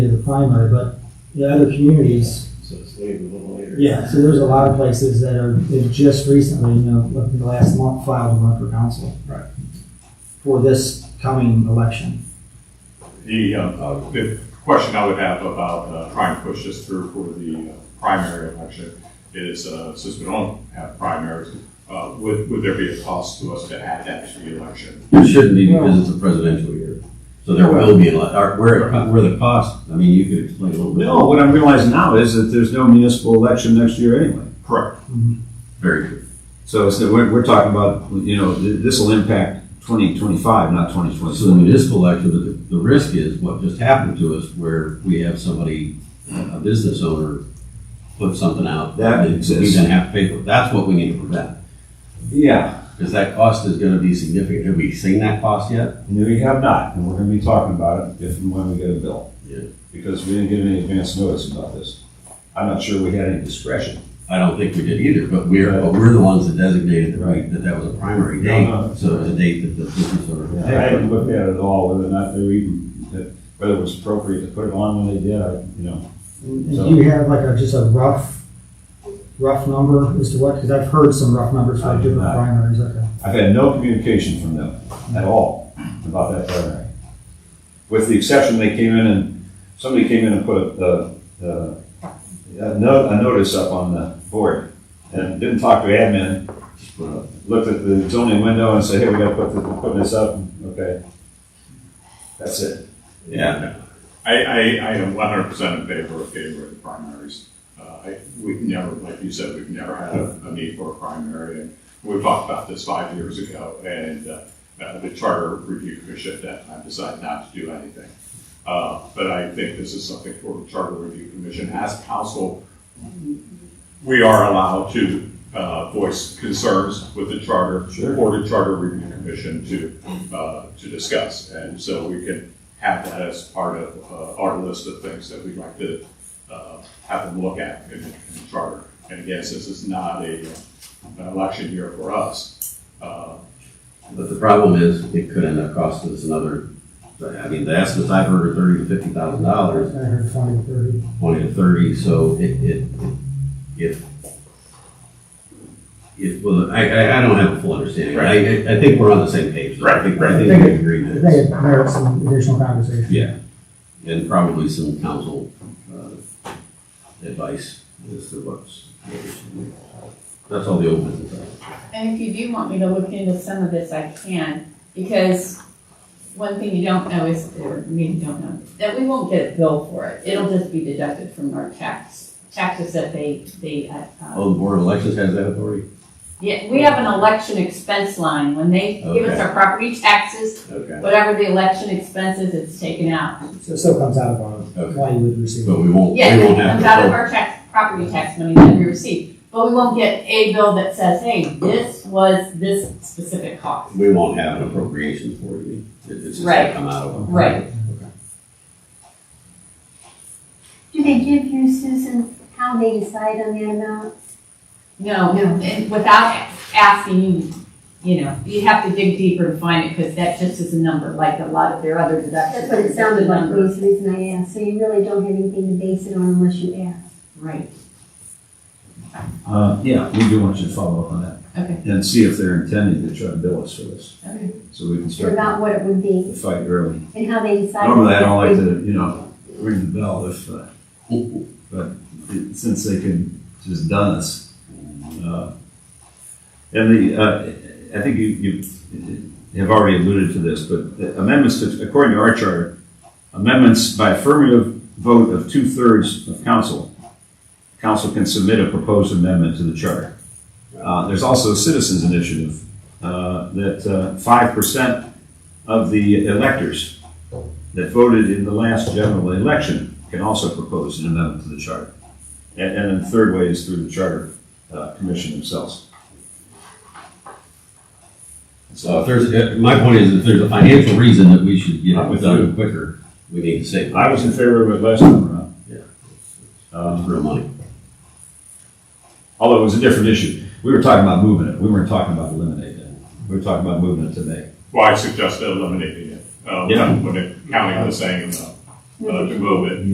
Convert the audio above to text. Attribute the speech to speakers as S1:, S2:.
S1: in the primary, but the other communities,
S2: So it's later, a little later.
S1: yeah, so there's a lot of places that are, that just recently, you know, within the last month filed to run for council.
S2: Right.
S1: For this coming election.
S3: The, uh, uh, the question I would have about uh, trying to push this through for the uh, primary election is, uh, since we don't have primaries, uh, would, would there be a cost to us to add that to the election?
S4: It shouldn't be because it's a presidential year. So there will be, a lot- or where, where the cost, I mean, you could explain a little bit.
S5: No, what I'm realizing now is that there's no municipal election next year anyway.
S3: Correct.
S4: Very good.
S5: So it's that we're, we're talking about, you know, th- this will impact 2025, not
S4: So the
S5: 2026.
S4: municipal election, the, the risk is what just happened to us where we have somebody, a business owner, put something out.
S5: That
S4: We
S5: exists.
S4: then have to pay for it. That's what we need to prevent.
S5: Yeah,
S4: Because that cost is gonna be significant. Have we seen that cost yet?
S5: no, we have not, and we're going to be talking about it if and when we get a bill.
S4: Yeah.
S5: Because we didn't get any advance notice about this. I'm not sure we had any discretion.
S4: I don't think we did either, but we're, but we're the ones that designated that we, that that was a primary date.
S5: No, no.
S4: So it was a date that the business owner.
S5: I haven't looked at it at all, whether or not they were even, that- whether it was appropriate to put it on when they did, I, you know.
S1: And Do you have like a, just a rough, rough number as to what, because I've heard some rough numbers
S5: I
S1: for
S5: do
S1: different
S5: not.
S1: primaries, okay.
S5: I've had no communication from them at all about that primary. With the exception, they came in and, somebody came in and put a, the, the, a no- a notice up on the board and didn't talk to admin. just put a- Looked at the zoning window and said, hey, we gotta put, the- put this up, okay. That's it.
S4: Yeah.
S3: I, I, I am one hundred percent in favor of getting rid of primaries. Uh, I, we've never, like you said, we've never had a, a need for a primary, and we talked about this five years ago, and, uh, uh, the Charter Review Commission at that time decided not to do anything. Uh, but I think this is something for the Charter Review Commission, as council, we are allowed to, uh, voice concerns with the charter.
S5: Sure.
S3: For the Charter Review Commission to, uh, to discuss, and so we can have that as part of uh, our list of things that we'd like to uh, have them look at in in the charter. And again, since it's not a, uh, an election year for us, uh,
S4: But the problem is, it could end up costing us another, I mean, the estimates I've heard are thirty to fifty thousand
S1: I
S4: dollars,
S1: heard twenty, thirty.
S4: twenty to thirty, so it, it, if, if, well, I, I, I don't have a full understanding. I- I, I think we're on the same page. though. I think- I think we agree
S1: I
S4: that
S1: think it
S4: it's,
S1: merits some additional conversation.
S4: yeah, and probably some council, uh, advice as to what's. That's all the old business. I have.
S6: And if you do want me to look into some of this, I can, because one thing you don't know is, or maybe you don't know, that we won't get a bill for it. It'll just be deducted from our tax, taxes that they, they, uh, uh,
S4: Oh, the board of elections has that authority?
S6: yeah, we have an election expense line. When they give us
S4: Okay.
S6: our property taxes,
S4: Okay.
S6: whatever the election expenses, it's taken out.
S1: So it still comes out of our,
S4: Okay.
S1: why you would receive. it.
S4: But we won't, we
S6: Yeah, it
S4: won't have
S6: comes
S4: to.
S6: out
S4: vote.
S6: of our tax, property tax money that we receive. But we won't get a bill that says, hey, this was this specific cost.
S4: We won't have an appropriation for you. It- It's just gonna
S6: Right.
S4: come out of.
S6: Right.
S7: Do they give you, Susan, how they decide on the amount?
S6: No, no, and without asking, you you know, you have to dig deeper to find it, because that just is a number, like a lot of their other deductions.
S7: That's what it sounded like,
S6: Numbers.
S7: was the reason I asked, so you really don't have anything to base it on unless you ask.
S6: Right,
S5: Uh, yeah, we do want you to follow up on that
S6: okay,
S5: and see if they're intending to try to bill us for this,
S6: okay.
S5: so we can
S7: Or
S5: start
S7: about what it would be
S5: the fight early.
S7: and how they decide.
S5: Normally, I don't like to, you know, ring the bell if, uh, but it- since they can just done us. uh, And the, uh, I think you, you have already alluded to this, but the amendments to, according to our charter, amendments by affirmative vote of two-thirds of council, council can submit a proposed amendment to the charter. Uh, There's also a citizens initiative uh, that five percent of the electors that voted in the last general election can also propose an amendment to the charter. And, and then the third way is through the charter uh, commission themselves.
S4: So if there's, if- my point is, if there's a financial reason that we should get it done quicker, we need to save. it.
S5: I was in favor of it last time around, Um,
S4: It's real money.
S5: although it was a different issue. We were talking about moving it, we weren't talking about eliminating it. We were talking about moving it today.
S3: well, I suggest eliminating it. uh,
S5: Yeah.
S3: When the county was saying, uh, uh, to move it,